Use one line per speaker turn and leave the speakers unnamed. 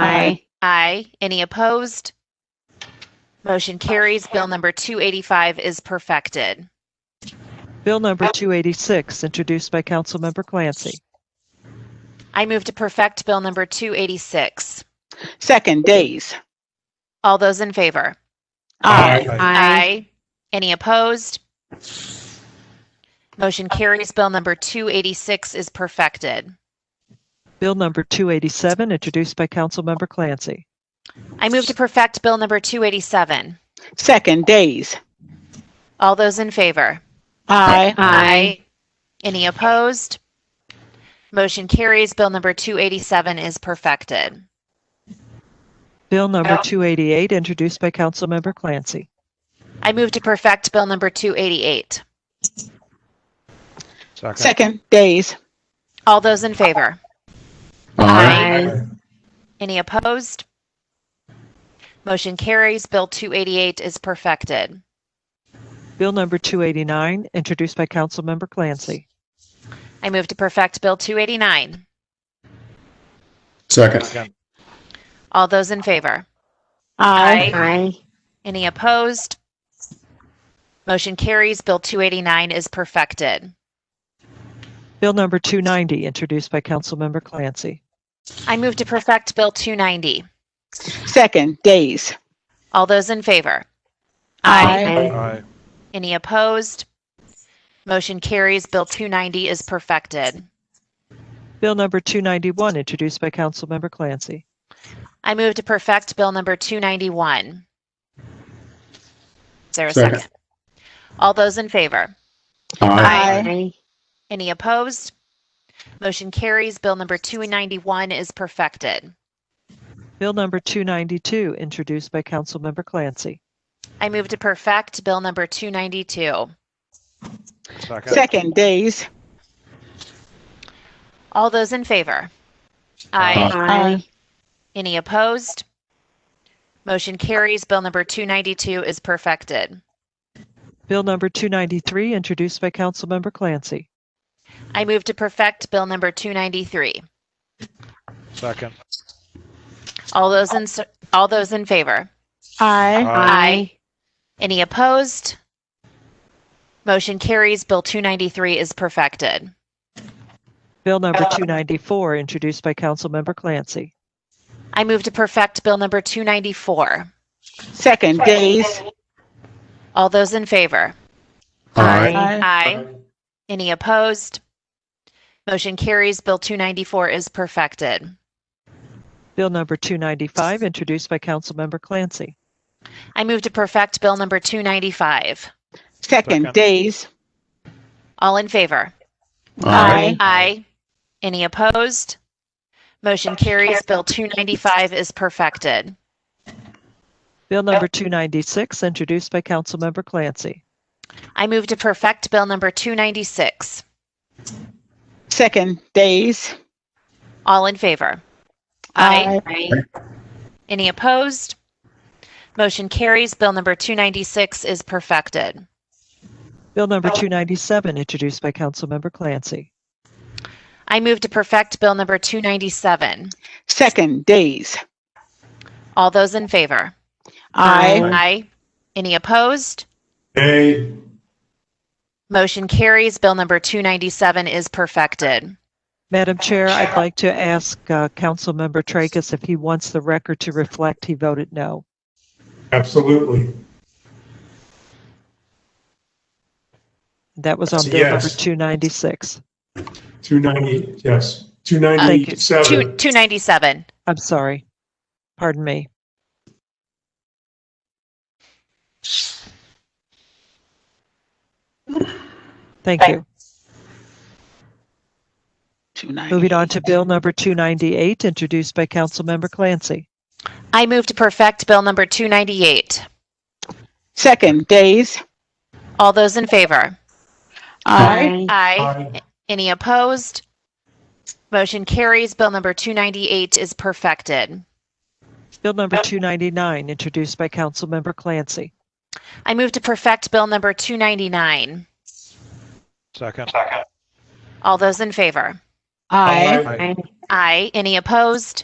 Aye.
Aye. Any opposed? Motion carries. Bill number 285 is perfected.
Bill number 286, introduced by Councilmember Clancy.
I move to perfect Bill number 286.
Second, Days.
All those in favor?
Aye.
Any opposed? Motion carries. Bill number 286 is perfected.
Bill number 287, introduced by Councilmember Clancy.
I move to perfect Bill number 287.
Second, Days.
All those in favor?
Aye.
Aye.
Any opposed? Motion carries. Bill number 287 is perfected.
Bill number 288, introduced by Councilmember Clancy.
I move to perfect Bill number 288.
Second.
Second, Days.
All those in favor?
Aye.
Any opposed? Motion carries. Bill 288 is perfected.
Bill number 289, introduced by Councilmember Clancy.
I move to perfect Bill 289.
Second.
Second.
All those in favor?
Aye.
Aye.
Any opposed? Motion carries. Bill 289 is perfected.
Bill number 290, introduced by Councilmember Clancy.
I move to perfect Bill 290.
Second, Days.
All those in favor?
Aye.
Any opposed? Motion carries. Bill 290 is perfected.
Bill number 291, introduced by Councilmember Clancy.
I move to perfect Bill number 291. Is there a
Second.
second? All those in favor?
Aye.
Aye.
Any opposed? Motion carries. Bill number 291 is perfected.
Bill number 292, introduced by Councilmember Clancy.
I move to perfect Bill number 292.
Second.
Second, Days.
All those in favor?
Aye.
Aye.
Any opposed? Motion carries. Bill number 292 is perfected.
Bill number 293, introduced by Councilmember Clancy.
I move to perfect Bill number 293.
Second.
All those in, all those in favor?
Aye.
Aye. Any opposed? Motion carries. Bill 293 is perfected.
Bill number 294, introduced by Councilmember Clancy.
I move to perfect Bill number 294.
Second, Days.
All those in favor?
Aye.
Aye. Any opposed? Motion carries. Bill 294 is perfected.
Bill number 295, introduced by Councilmember Clancy.
I move to perfect Bill number 295.
Second,
Second.
Days.
All in favor?
Aye.
Aye. Any opposed? Motion carries. Bill 295 is perfected.
Bill number 296, introduced by Councilmember Clancy.
I move to perfect Bill number 296.
Second, Days.
All in favor? Any opposed? Motion carries. Bill number 296 is perfected.
Bill number 297, introduced by Councilmember Clancy.
I move to perfect Bill number 297.
Second, Days.
All those in favor?
Aye.
Aye. Any opposed?
Aye.
Motion carries. Bill number 297 is perfected.
Madam Chair, I'd like to ask uh, Councilmember Tracus if he wants the record to reflect he voted no.
Absolutely.
That was on Bill number
Yes.
296.
290, yes.
Two-
297.
297.
I'm sorry. Pardon me. Thank you.
Two nine.
Moving on to Bill number 298, introduced by Councilmember Clancy.
I move to perfect Bill number 298.
Second, Days.
All those in favor?
Aye.
Aye.
Aye.
Any opposed? Motion carries. Bill number 298 is perfected.
Bill number 299, introduced by Councilmember Clancy.
I move to perfect Bill number 299.
Second.
All those in favor?
Aye.
Aye. Any opposed?